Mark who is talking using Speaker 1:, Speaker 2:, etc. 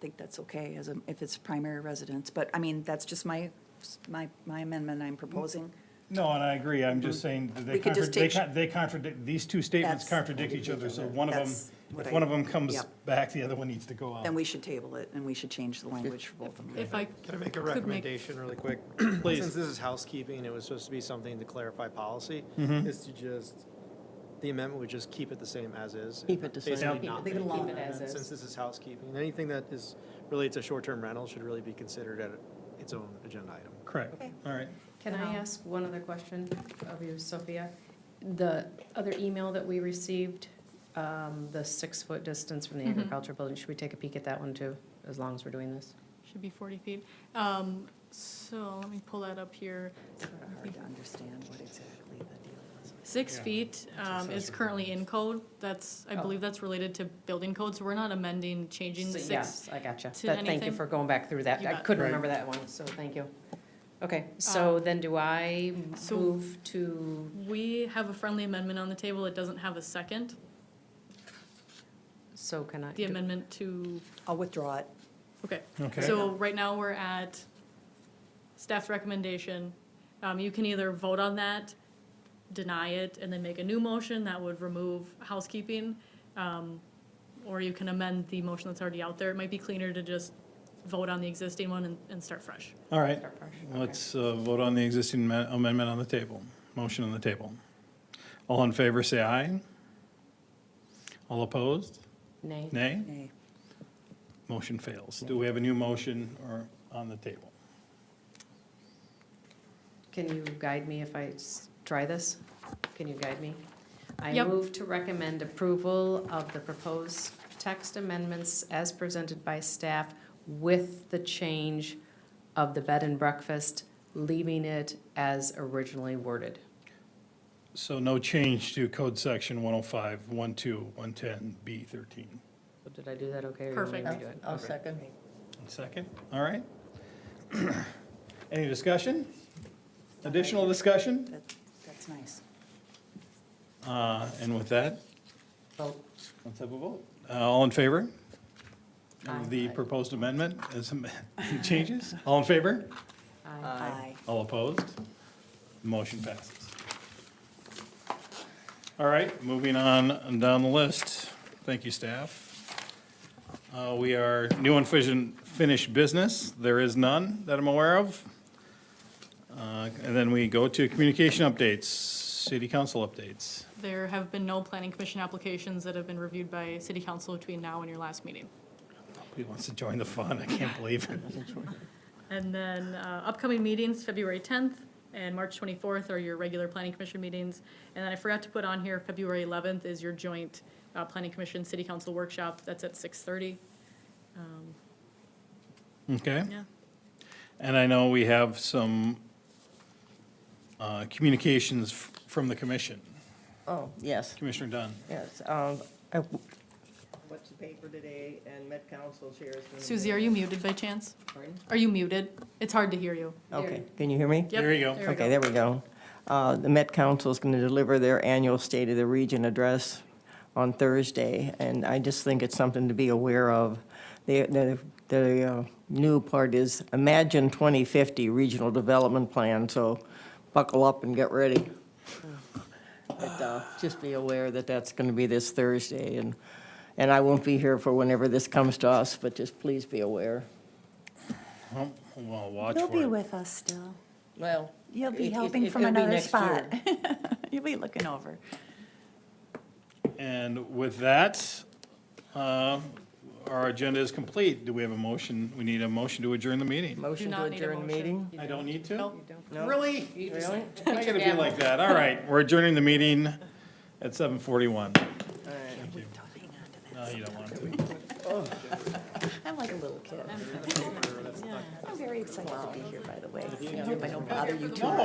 Speaker 1: think that's okay as, a- if it's primary residence, but, I mean, that's just my, my, my amendment I'm proposing.
Speaker 2: No, and I agree, I'm just saying that
Speaker 1: Mm.
Speaker 2: they
Speaker 1: We could just
Speaker 2: contradict, they
Speaker 1: take-
Speaker 2: con- they contradict, these two statements
Speaker 1: That's-
Speaker 2: contradict each other, so one of
Speaker 1: That's
Speaker 2: them,
Speaker 1: what I-
Speaker 2: if one of them comes
Speaker 1: Yep.
Speaker 2: back, the other one needs to go out.
Speaker 1: Then we should table it, and we should change the language for both of them.
Speaker 3: If I
Speaker 4: Can I make a
Speaker 3: could make
Speaker 4: recommendation really quick?
Speaker 2: Please.
Speaker 4: Since this is housekeeping, it was supposed to be something to clarify policy, is to just, the amendment would just keep it the same as is.
Speaker 5: Keep it the same.
Speaker 4: Basically
Speaker 2: Yeah.
Speaker 4: not
Speaker 1: Leave it
Speaker 4: make
Speaker 1: alone.
Speaker 4: an
Speaker 5: Keep it as
Speaker 4: amendment,
Speaker 5: is.
Speaker 4: Since this is housekeeping, anything that is, related to short-term rental should really be considered at its own agenda item.
Speaker 2: Correct, all right.
Speaker 3: Can I ask one other question of you, Sophia? The other email that we received, um, the six-foot distance from the
Speaker 6: Mm-hmm.
Speaker 3: agriculture building, should we take a peek at that one too, as long as we're doing this?
Speaker 6: Should be 40 feet. Um, So let me pull that up here.
Speaker 1: It's sort of hard to understand what exactly the deal is.
Speaker 6: Six
Speaker 4: Yeah.
Speaker 6: feet um, is
Speaker 4: Accessory
Speaker 6: currently in code. That's, I
Speaker 3: Oh.
Speaker 6: believe that's related to building code, so we're not amending, changing
Speaker 3: So,
Speaker 6: six.
Speaker 3: Yes, I gotcha.
Speaker 6: to
Speaker 3: But thank you
Speaker 6: anything?
Speaker 3: for going back through that.
Speaker 6: You
Speaker 3: I
Speaker 6: bet.
Speaker 3: couldn't
Speaker 4: Right.
Speaker 3: remember that one, so thank you. Okay, so then do I
Speaker 6: Uh, So-
Speaker 3: move to,
Speaker 6: We have a friendly amendment on the table. It doesn't have a second.
Speaker 3: so can I?
Speaker 6: The
Speaker 3: do-
Speaker 6: amendment to,
Speaker 1: I'll withdraw it.
Speaker 6: okay.
Speaker 2: Okay.
Speaker 6: So right now, we're at staff's recommendation. Um, You can either vote on that, deny it, and then make a new motion that would remove housekeeping. um, Or you can amend the motion that's already out there. It might be cleaner to just vote on the existing one and, and start fresh.
Speaker 2: All right,
Speaker 3: Start fresh, okay.
Speaker 2: let's uh, vote on the existing ma- amendment on the table, motion on the table. All in favor, say aye. All opposed?
Speaker 3: Nay?
Speaker 2: Nay?
Speaker 1: Nay.
Speaker 2: Motion fails. Do we have a new motion or on the table?
Speaker 3: Can you guide me if I s- try this? Can you guide me? I
Speaker 6: Yep.
Speaker 3: move to recommend approval of the proposed text amendments as presented by staff with the change of the bed and breakfast, leaving it as originally worded.
Speaker 2: So no change to code section 105, 12, 110, B13.
Speaker 3: So Did I do that okay? or you want me to
Speaker 6: Perfect.
Speaker 3: redo it?
Speaker 5: I'll
Speaker 3: Okay.
Speaker 5: second.
Speaker 2: Second, all right. Any discussion? Additional discussion?
Speaker 1: That, that's nice.
Speaker 2: Uh, And with that,
Speaker 3: Vote.
Speaker 2: let's have a vote. Uh, All in favor
Speaker 3: Aye.
Speaker 2: of the proposed amendment as am- changes? All in favor?
Speaker 3: Aye.
Speaker 1: Aye.
Speaker 2: All opposed? Motion passes. All right, moving on and down the list. Thank you, staff. Uh, We are new and fission- finished business. There is none that I'm aware of. Uh, And then we go to communication updates, city council updates.
Speaker 6: There have been no planning commission applications that have been reviewed by city council between now and your last meeting.
Speaker 2: Nobody wants to join the fun? I can't believe it.
Speaker 6: And then uh, upcoming meetings, February 10th and March 24th are your regular planning commission meetings. And then I forgot to put on here, February 11th is your joint uh, planning commission, city council workshop. That's at 6:30. Um,
Speaker 2: Okay?
Speaker 6: Yeah,
Speaker 2: And I know we have some uh, communications f- from the commission.
Speaker 5: Oh, yes,
Speaker 2: Commissioner Dunn.
Speaker 5: yes. um, I w- What's the paper today and Met Council shares.
Speaker 6: Susie, are you muted by chance? Are you muted? It's hard to hear you.
Speaker 5: Okay, can you hear me?
Speaker 6: Yep,
Speaker 2: There you go.
Speaker 6: there we
Speaker 5: Okay, there we go. Uh, The Met Council is going to deliver their annual State of the Region address on Thursday, and I just think it's something to be aware of. The- The the, uh, new part is Imagine 2050 Regional Development Plan, so buckle up and get ready. But uh, just be aware that that's going to be this Thursday, and and I won't be here for whenever this comes to us, but just please be aware.
Speaker 2: Well, Well, watch
Speaker 1: You'll be
Speaker 2: for it.
Speaker 1: with us still.
Speaker 5: Well.
Speaker 1: You'll be
Speaker 5: it- it-
Speaker 1: helping
Speaker 5: it
Speaker 1: from
Speaker 5: could be
Speaker 1: another
Speaker 5: next year.
Speaker 1: spot. You'll be looking over.
Speaker 2: And with that, uh, our agenda is complete. Do we have a motion? We need a motion to adjourn the meeting.
Speaker 5: Motion to
Speaker 6: not need a
Speaker 5: adjourn
Speaker 6: motion.
Speaker 5: meeting?
Speaker 2: I don't need to?
Speaker 6: go.
Speaker 5: No.
Speaker 2: Really?
Speaker 5: Really?
Speaker 2: I gotta be like that. All right, we're adjourning the meeting at 7:41. Thank you. No, you don't want to.
Speaker 1: I'm like a little kid. I'm very excited to be here, by the way. I hope I don't bother you too much.